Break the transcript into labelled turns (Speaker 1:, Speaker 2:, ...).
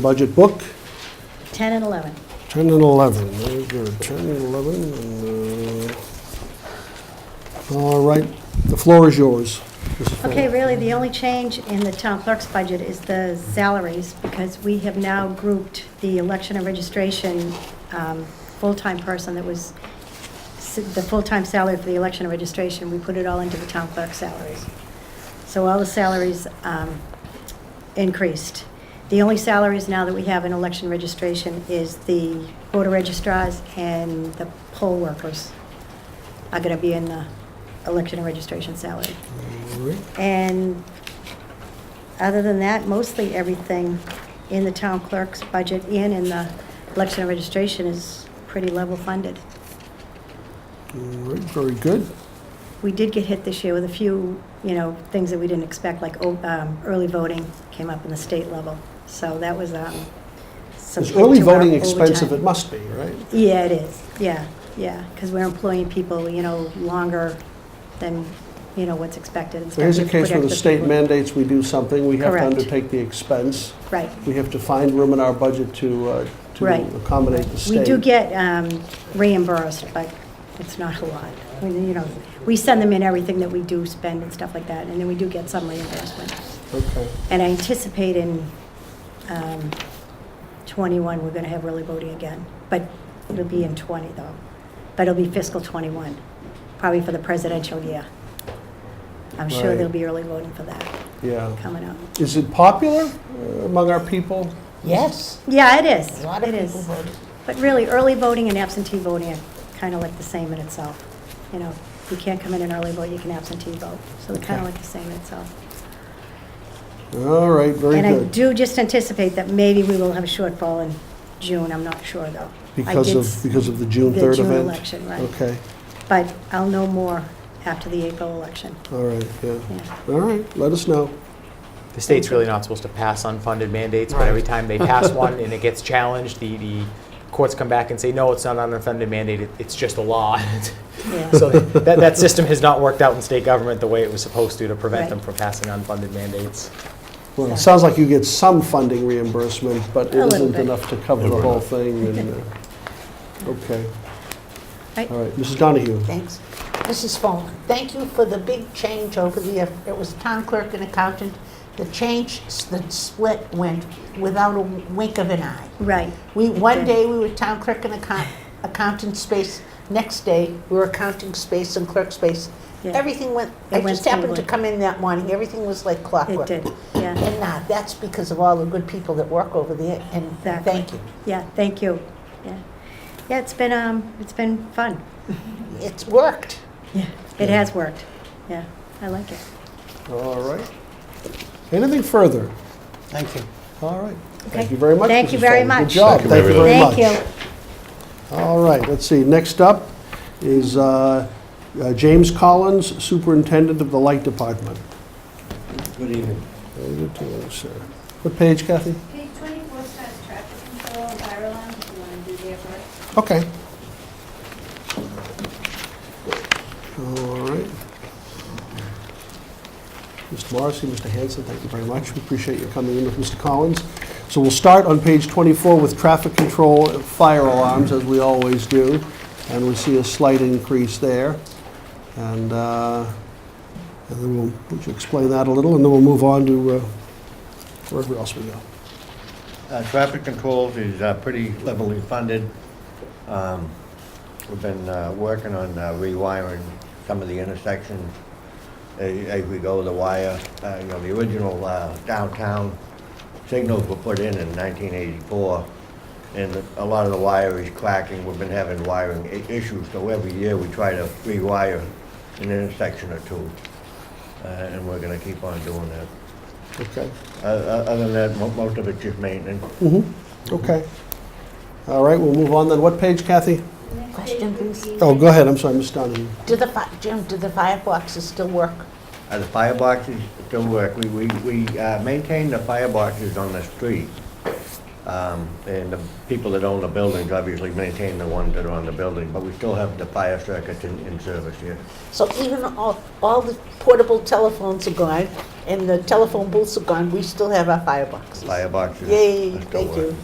Speaker 1: budget book,
Speaker 2: 10 and 11.
Speaker 1: 10 and 11. Very good. 10 and 11. and, uh, All right, the floor is yours. Mrs. Fuller.
Speaker 2: Okay, really, the only change in the town clerk's budget is the salaries, because we have now grouped the election and registration um, full-time person that was, s- the full-time salary for the election and registration, we put it all into the town clerk's salaries. So all the salaries um, increased. The only salaries now that we have in election registration is the voter registrars and the poll workers are going to be in the election and registration salary.
Speaker 1: All right.
Speaker 2: And other than that, mostly everything in the town clerk's budget and in the election and registration is pretty level funded.
Speaker 1: All right, very good.
Speaker 2: We did get hit this year with a few, you know, things that we didn't expect, like oh, um, early voting came up in the state level. So that was um, some.
Speaker 1: Is early
Speaker 2: hit to our
Speaker 1: voting expensive? It
Speaker 2: overtime.
Speaker 1: must be, right?
Speaker 2: Yeah, it is, yeah, yeah, because we're employing people, you know, longer than, you know, what's expected. and stuff.
Speaker 1: There's
Speaker 2: We
Speaker 1: a
Speaker 2: have to
Speaker 1: case where the
Speaker 2: protect
Speaker 1: state
Speaker 2: people.
Speaker 1: mandates we do something, we have to
Speaker 2: Correct.
Speaker 1: undertake the expense.
Speaker 2: Right.
Speaker 1: We have to find room in our budget to, uh,
Speaker 2: Right.
Speaker 1: to accommodate the state.
Speaker 2: We do get um, reimbursed, but it's not a lot. We, you know, we send them in everything that we do spend and stuff like that, and then we do get some reimbursement.
Speaker 1: Okay.
Speaker 2: And I anticipate in um, '21, we're gonna have early voting again, but it'll be in '20 though. But it'll be fiscal '21, probably for the presidential year. I'm sure
Speaker 1: Right.
Speaker 2: there'll be early voting for that
Speaker 1: Yeah.
Speaker 2: coming up.
Speaker 1: Is it popular uh, among our people?
Speaker 3: Yes,
Speaker 2: Yeah, it is.
Speaker 3: a lot of
Speaker 2: It
Speaker 3: people
Speaker 2: is.
Speaker 3: voted.
Speaker 2: But really, early voting and absentee voting are kind of like the same in itself. You know, you can't come in and early vote, you can absentee vote. So they're kind of
Speaker 1: Okay.
Speaker 2: like the same in itself.
Speaker 1: All right, very
Speaker 2: And I
Speaker 1: good.
Speaker 2: do just anticipate that maybe we will have a shortfall in June, I'm not sure, though. I
Speaker 1: Because
Speaker 2: did
Speaker 1: of,
Speaker 2: s-
Speaker 1: because of the June
Speaker 2: the
Speaker 1: 3rd event?
Speaker 2: June election, right.
Speaker 1: Okay,
Speaker 2: But I'll know more after the April election.
Speaker 1: all right, yeah.
Speaker 2: Yeah.
Speaker 1: All right, let us know.
Speaker 4: The state's really not supposed to pass unfunded mandates, but every time they pass one and it gets challenged, the, the courts come back and say, no, it's not an unfunded mandate, it- it's just a law.
Speaker 2: Yeah.
Speaker 4: So that, that system has not worked out in state government the way it was supposed to, to prevent them
Speaker 2: Right.
Speaker 4: from passing unfunded mandates.
Speaker 1: Well, it sounds like you get some funding reimbursement, but it
Speaker 2: A little
Speaker 1: isn't
Speaker 2: bit.
Speaker 1: enough to cover the whole thing. and, uh, Okay,
Speaker 2: Right?
Speaker 1: all right, Mrs. Donahue.
Speaker 3: Thanks. Mrs. Funk, thank you for the big change over the, year. it was town clerk and accountant. The change, s- the split went without a wink of an eye.
Speaker 2: Right.
Speaker 3: We, one
Speaker 2: did.
Speaker 3: day, we were town clerk and account- accountant space. Next day, we were accounting space and clerk space.
Speaker 2: Yeah.
Speaker 3: Everything went,
Speaker 2: It
Speaker 3: I
Speaker 2: went
Speaker 3: just happened to
Speaker 2: smoothly.
Speaker 3: come in that morning, everything was like
Speaker 2: It
Speaker 3: clockwork.
Speaker 2: did, yeah,
Speaker 3: And now, that's because of all the good people that work over there, and
Speaker 2: Exactly.
Speaker 3: thank you.
Speaker 2: yeah, thank you, yeah. Yeah, it's been, um, it's been fun.
Speaker 3: It's worked.
Speaker 2: Yeah. It has worked, yeah, I like it.
Speaker 1: All right. Anything further?
Speaker 5: Thank you.
Speaker 1: All right. Thank
Speaker 2: Okay.
Speaker 1: you very much.
Speaker 2: Thank you
Speaker 1: Mrs.
Speaker 2: very
Speaker 1: Fong. Good
Speaker 2: much.
Speaker 1: job,
Speaker 6: Thank you
Speaker 1: thank you
Speaker 6: very
Speaker 1: very much.
Speaker 2: Thank you.
Speaker 1: All right, let's see, next up is uh, uh, James Collins, Superintendent of the Light Department.
Speaker 5: Good evening.
Speaker 1: Very good to you, sir. What page, Kathy?
Speaker 7: Page 24 says traffic control and fire alarm, if you want to do there first.
Speaker 1: Okay. All right. Mr. Morrissey, Mr. Hanson, thank you very much. We appreciate your coming in with Mr. Collins. So we'll start on page 24 with traffic control and fire alarms, as we always do, and we see a slight increase there. And uh, and then we'll, would you explain that a little, and then we'll move on to uh, wherever else we go.
Speaker 5: Uh, Traffic controls is uh, pretty levelly funded. Um, We've been uh, working on uh, rewiring some of the intersections a- as we go the wire. Uh, You know, the original uh, downtown signals were put in in 1984, and a lot of the wire is cracking. We've been having wiring i- issues, so every year we try to rewire an intersection or two, Uh, and we're going to keep on doing that.
Speaker 1: Okay.
Speaker 5: Uh, uh, Other than that, mo- most of it's just maintenance.
Speaker 1: Mm-hmm, okay. All right, we'll move on then. What page, Kathy?
Speaker 3: Question, please.
Speaker 1: Oh, go ahead, I'm sorry, Ms. Donahue.
Speaker 3: Do the, fi- Jim, do the fireboxes still work?
Speaker 5: Uh, The fireboxes still work. We, we, we uh, maintain the fireboxes on the street. Um, And the people that own the buildings obviously maintain the ones that are on the building, but we still have the fire circuits in, in service here.
Speaker 3: So even all, all the portable telephones are gone,
Speaker 5: and the telephone booths are gone, we still have our fireboxes.
Speaker 3: Fireboxes.
Speaker 5: Yay,
Speaker 3: are still
Speaker 5: thank you.
Speaker 3: working.